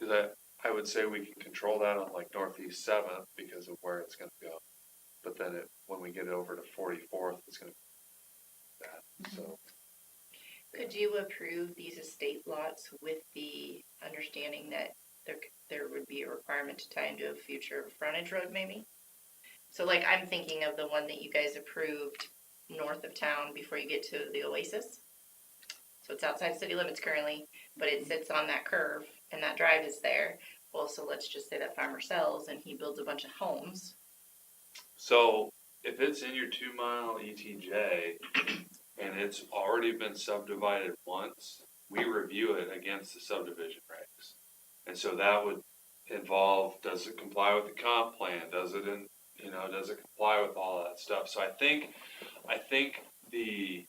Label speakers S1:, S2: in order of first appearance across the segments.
S1: that, I would say we can control that on like Northeast Seventh because of where it's gonna go. But then it, when we get it over to Forty-Fourth, it's gonna be that, so.
S2: Could you approve these estate lots with the understanding that there, c- there would be a requirement to tie into a future frontage road maybe? So like, I'm thinking of the one that you guys approved north of town before you get to the Oasis. So it's outside city limits currently, but it sits on that curve and that drive is there. Well, so let's just say that farmer sells and he builds a bunch of homes.
S1: So if it's in your two mile ETJ and it's already been subdivided once, we review it against the subdivision regs. And so that would involve, does it comply with the comp plan? Does it in, you know, does it comply with all that stuff? So I think, I think the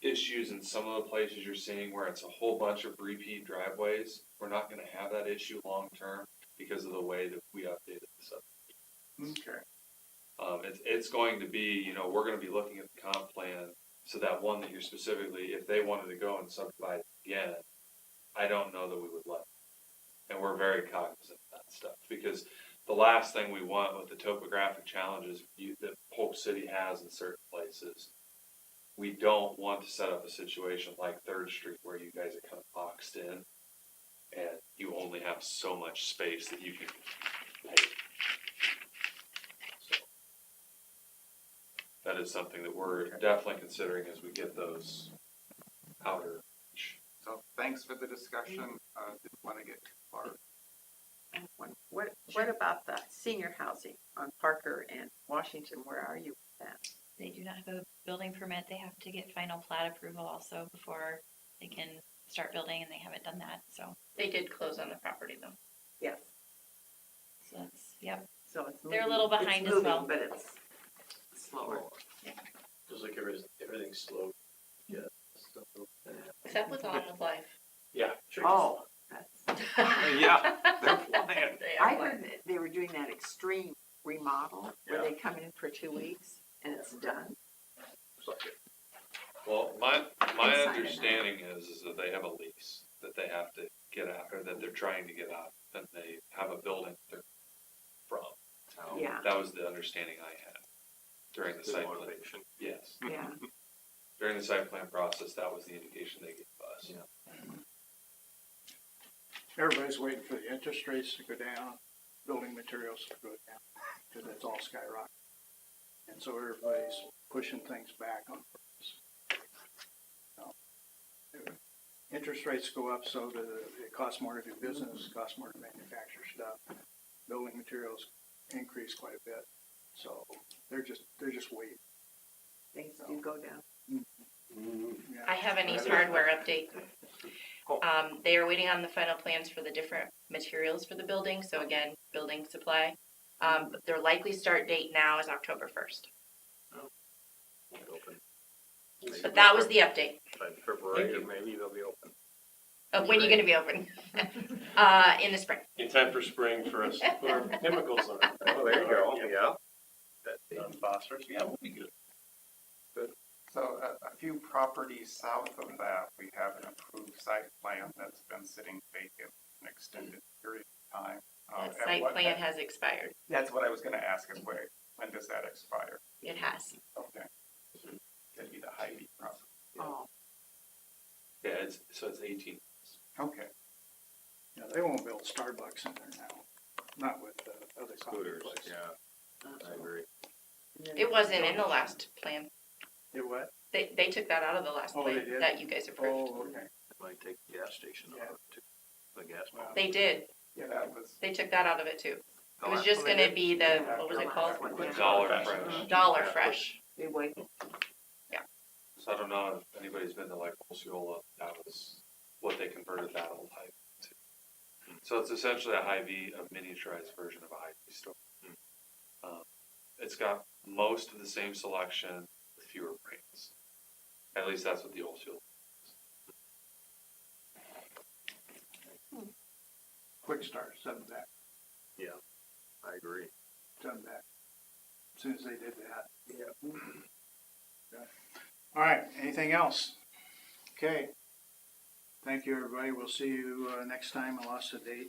S1: issues in some of the places you're seeing where it's a whole bunch of repeat driveways, we're not gonna have that issue long-term because of the way that we updated the subdivision.
S3: Okay.
S1: Um, it's, it's going to be, you know, we're gonna be looking at the comp plan, so that one that you're specifically, if they wanted to go and subdivide again, I don't know that we would let. them. And we're very cognizant of that stuff, because the last thing we want with the topographic challenges you, that Polk City has in certain places, we don't want to set up a situation like Third Street where you guys are kind of boxed in, and you only have so much space that you can. pave. So that is something that we're definitely considering as we get those outer.
S3: So thanks for the discussion. Uh, didn't want to get too far.
S4: One- What, what about the senior housing on Parker and Washington? Where are you with that?
S5: They do not have a building permit. They have to get final plat approval also before they can start building and they haven't done that. So,
S2: They did close on the property though.
S4: Yes,
S5: so that's, yep.
S4: so it's.
S5: They're a
S4: moving-
S5: little
S4: it's
S5: behind as
S4: moving,
S5: well.
S4: But it's slower.
S6: Just like everything, everything's slow. Yeah.
S2: Except with On With Life.
S6: Yeah. sure.
S4: Oh, that's,
S6: Yeah, they're flying.
S2: They are
S4: I
S2: like-
S4: heard that they were doing that extreme remodel where they come in for two weeks and it's done.
S6: It's like it-
S1: Well, my, my
S4: Inside and out.
S1: understanding is, is that they have a lease that they have to get out, or that they're trying to get out, and they have a building they're from.
S4: Yeah.
S1: That was the understanding I had during the
S6: it's
S1: site plan,
S6: motivation.
S1: yes,
S4: Yeah,
S1: during the site plan process, that was the indication they gave us.
S7: Everybody's waiting for the interest rates to go down, building materials to go down, because it's all skyrocketing. And so everybody's pushing things back on purpose. Now, Interest rates go up, so do, the- it costs more to do business, it costs more to manufacture stuff. Building materials increase quite a bit, so they're just, they're just waiting.
S4: things do go down.
S7: yeah.
S2: I have an East Hardware update. Um, they are waiting on the final plans for the different materials for the building, so again, building supply. Um, but their likely start date now is October first,
S6: Wide open.
S2: but that was the update
S6: By February, maybe they'll be open.
S2: of when you're gonna be open. Uh, in the spring.
S8: In time for spring for us, to put our chemicals on.
S6: Oh, there you go, yeah. That-
S8: Um, Phosphorus, yeah, we'll be good.
S3: So a, a few properties south of that, we have an approved site plan that's been sitting vacant an extended period of time.
S7: Oh,
S3: Uh,
S2: That
S3: and
S2: site
S3: what-
S2: plan has expired.
S3: That's what I was gonna ask, is where, when does that expire?
S2: It has.
S3: Okay. That'd be the Hy-Vee property.
S4: Oh,
S1: Yeah, it's, so it's eighteen
S3: Okay,
S7: Yeah, they won't build Starbucks in there now, not with the other coffee
S6: Scooters,
S7: places.
S6: yeah, I
S4: uh-oh.
S6: agree.
S4: And then
S2: It wasn't in the last plan.
S7: It what?
S2: They, they took that out of the last
S7: Oh, they
S2: plan
S7: did?
S2: that you guys approved.
S7: Oh, okay,
S6: Might take the gas station out of it too. The gas. pump.
S2: They did.
S3: yeah, that was,
S2: They took that out of it too. It
S6: Oh,
S2: was
S6: I-
S2: just
S6: oh, they
S2: gonna
S6: did?
S2: be the, what was
S4: the
S2: it
S4: last
S2: called?
S4: one,
S1: with
S4: yeah.
S1: Dollar
S6: Fresh.
S1: Fresh.
S2: Dollar Fresh.
S4: We waited.
S1: So I don't know if anybody's been to like Osceola, that was what they converted that old Hy-Vee to. So it's essentially a Hy-Vee, a miniaturized version of a Hy-Vee store. Um, It's got most of the same selection, with fewer brands. At least that's what the Osceola.
S7: Quick Start, send that.
S6: I agree.
S7: done that. As Soon as they did that. Yeah. All right, anything else? Okay. Thank you, everybody. We'll see you, uh, next time. I lost the date.